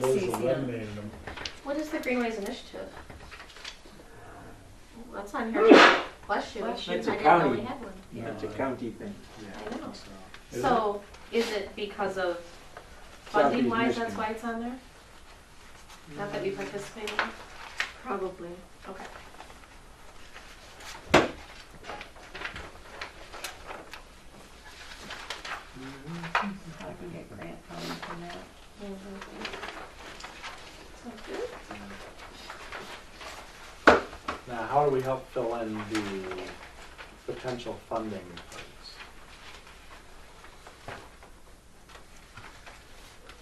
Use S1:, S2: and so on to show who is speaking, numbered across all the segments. S1: Those
S2: CCM.
S1: eliminated them.
S3: What is the Greenways Initiative? That's on here. Bless you.
S2: Bless
S4: you. That's a
S3: I didn't know we
S4: county.
S3: had one.
S1: No,
S4: It's a county thing.
S3: I know.
S1: Is
S3: So is it because of
S4: Southeast
S3: funding wise, that's
S4: Michigan.
S3: why it's on there? Not that we participated?
S2: Probably.
S3: Okay.
S2: I can get grant funding for that.
S3: Sounds good.
S5: Now, how do we help fill in the potential funding?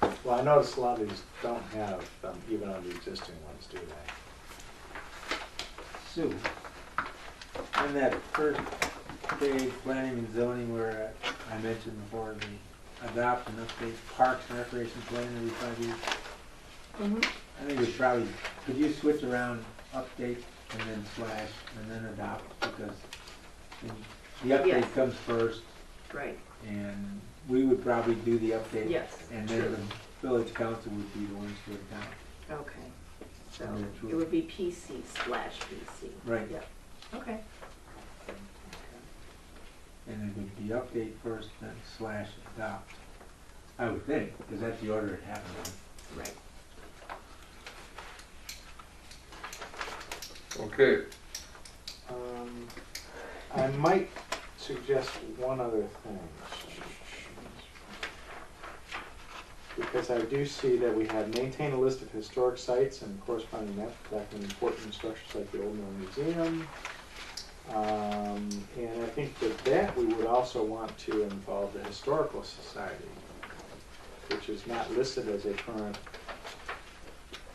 S5: parts? Well, I noticed a lot of these don't have, um, even on the existing ones, do they?
S4: Sue, on that first day planning and zoning where I mentioned before, the adopt and update parks and recreation plan every five years, I think we probably, could you switch around update and then slash and then adopt? Because the- the
S2: Yes.
S4: update comes first
S2: Right,
S4: and we would probably do the update.
S2: yes,
S4: And then
S2: true,
S4: the village council would be the ones to adopt.
S2: okay. So
S4: And then
S2: it
S4: true.
S2: would be PC slash PC.
S4: Right.
S2: Yeah, okay.
S4: And it would be update first, then slash adopt. I would think, because that's the order it happened in.
S2: Right.
S6: Okay,
S5: Um, I might suggest one other thing. Because I do see that we have maintain a list of historic sites and corresponding map backing important structures like the Old Mill Museum. Um, and I think with that, we would also want to involve the Historical Society, which is not listed as a current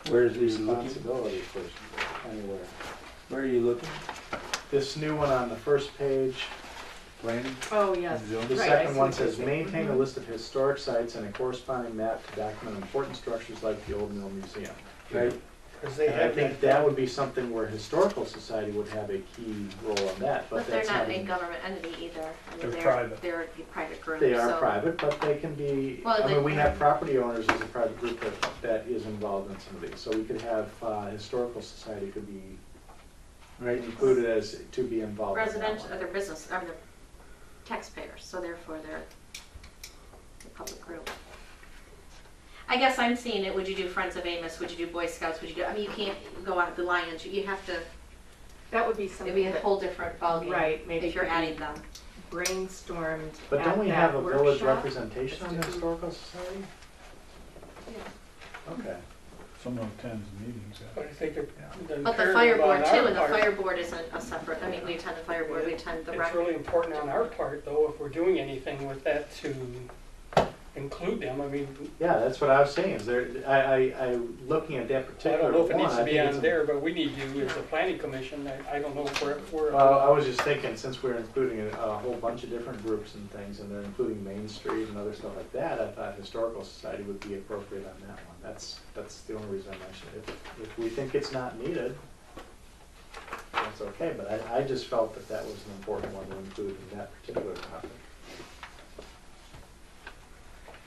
S4: Where is the looking?
S5: responsibility for anywhere.
S4: Where are you looking?
S5: This new one on the first page,
S4: Planning?
S2: Oh, yes.
S4: Zoom.
S5: The
S2: Right, I
S5: second
S2: see
S5: one
S2: what you're
S5: says,
S2: saying. Mm-hmm.
S5: maintain a list of historic sites and a corresponding map to document important structures like the Old Mill Museum.
S4: Right,
S1: Cause they
S5: And I
S1: have
S5: think
S2: uh,
S1: that,
S5: that would be something where Historical Society would have a key role in that, but
S3: But they're
S5: that's not.
S3: not a
S5: in-
S3: government entity either. I mean,
S1: They're private.
S3: They're a private group, so.
S5: They are private, but they can be,
S3: Well,
S5: I
S3: they-
S5: mean, we have property owners as a private group that, that is involved in some of these. So we could have, uh, Historical Society could be
S4: right.
S5: included as, to be involved in that
S3: Residential,
S5: one.
S3: or their business, or their taxpayers, so therefore they're a public group. I guess I'm seeing it, would you do Friends of Amos, would you do Boy Scouts, would you do, I mean, you can't go out of the Lions, you have to,
S2: That would be
S3: it'd
S2: something
S3: be a
S2: that
S3: whole different ballgame.
S2: Right, maybe
S3: If you're
S2: could be-
S3: adding them.
S2: brainstormed
S5: But don't
S2: at
S5: we
S2: that
S5: have a village
S2: workshop.
S5: representation on the Historical Society? Okay.
S1: someone attends the meetings.
S7: What do you think of- the
S3: But the
S7: imperative
S3: fire board
S7: on
S3: too,
S7: our
S3: and the
S7: part-
S3: fire board isn't a separate, I mean, we attend the fire board, we attend the rec.
S7: It's really important on our part, though, if we're doing anything with that to include them, I mean,
S5: Yeah, that's what I was saying, is there, I, I, I, looking at that
S7: I
S5: particular one.
S7: don't know if it needs to
S5: I
S7: be
S5: think it's
S7: on
S5: a-
S7: there, but we need you as the planning commission, I, I don't know if we're, we're.
S5: Well, I was just thinking, since we're including a, a whole bunch of different groups and things, and they're including Main Street and other stuff like that, I thought Historical Society would be appropriate on that one. That's, that's the only reason I mentioned it. If- If we think it's not needed, that's okay, but I, I just felt that that was an important one to include in that particular topic.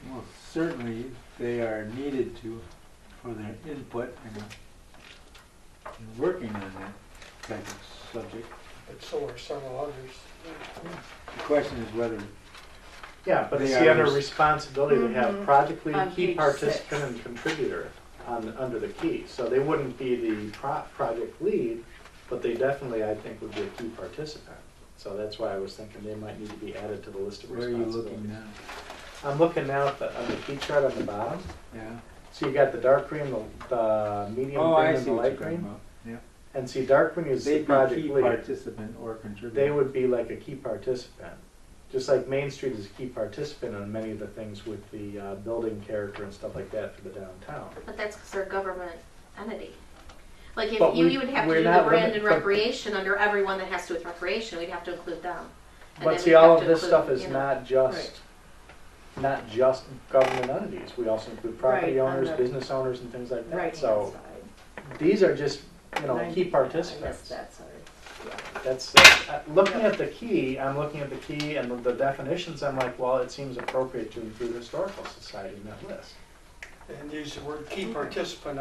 S4: Well, certainly, they are needed to, for their input and and working on that type of subject.
S7: But so are several others.
S4: The question is whether,
S5: Yeah, but it's
S4: They
S5: the
S4: are
S5: other
S4: res-
S5: responsibility they have, Mm-hmm.
S2: Mhm.
S5: project
S2: On
S5: lead, key
S2: page
S5: participant,
S2: six.
S5: and contributor on, under the key. So they wouldn't be the pro- project lead, but they definitely, I think, would be a key participant. So that's why I was thinking they might need to be added to the list of
S4: where are you looking
S5: responsibilities.
S4: now?
S5: I'm looking now at the, on the key chart on the bottom.
S4: Yeah?
S5: So you got the dark green, the, the medium
S4: Oh,
S5: green,
S4: I
S5: and
S4: see
S5: the
S4: what you're
S5: light
S4: talking
S5: green.
S4: about. Yeah.
S5: And see, dark green is the
S4: They'd
S5: project
S4: be
S5: lead
S4: key participant or contributor.
S5: they would be like a key participant. Just like Main Street is a key participant on many of the things with the uh, building character and stuff like that for the downtown.
S3: But that's because they're a government entity. Like,
S5: But
S3: if you,
S5: we-
S3: you would have to
S5: we're
S3: do the
S5: not
S3: brand
S5: limit-
S3: and
S5: but-
S3: recreation under everyone that has to do with recreation, we'd have to include them. And then
S5: But see,
S3: we'd
S5: all
S3: have
S5: of
S3: to
S5: this
S3: include,
S5: stuff is
S3: you know-
S5: not just, not just government entities. We also include property
S2: Right, on
S5: owners,
S2: the-
S5: business owners and things like
S2: Right-hand
S5: that. So
S2: side.
S5: these are just, you know,
S2: Ninety-
S5: key
S2: I missed
S5: participants.
S2: that, sorry.
S5: That's, uh, looking at the key, I'm looking at the key and the- the definitions, I'm like, well, it seems appropriate to include Historical Society in that list.
S7: and use the word key participant,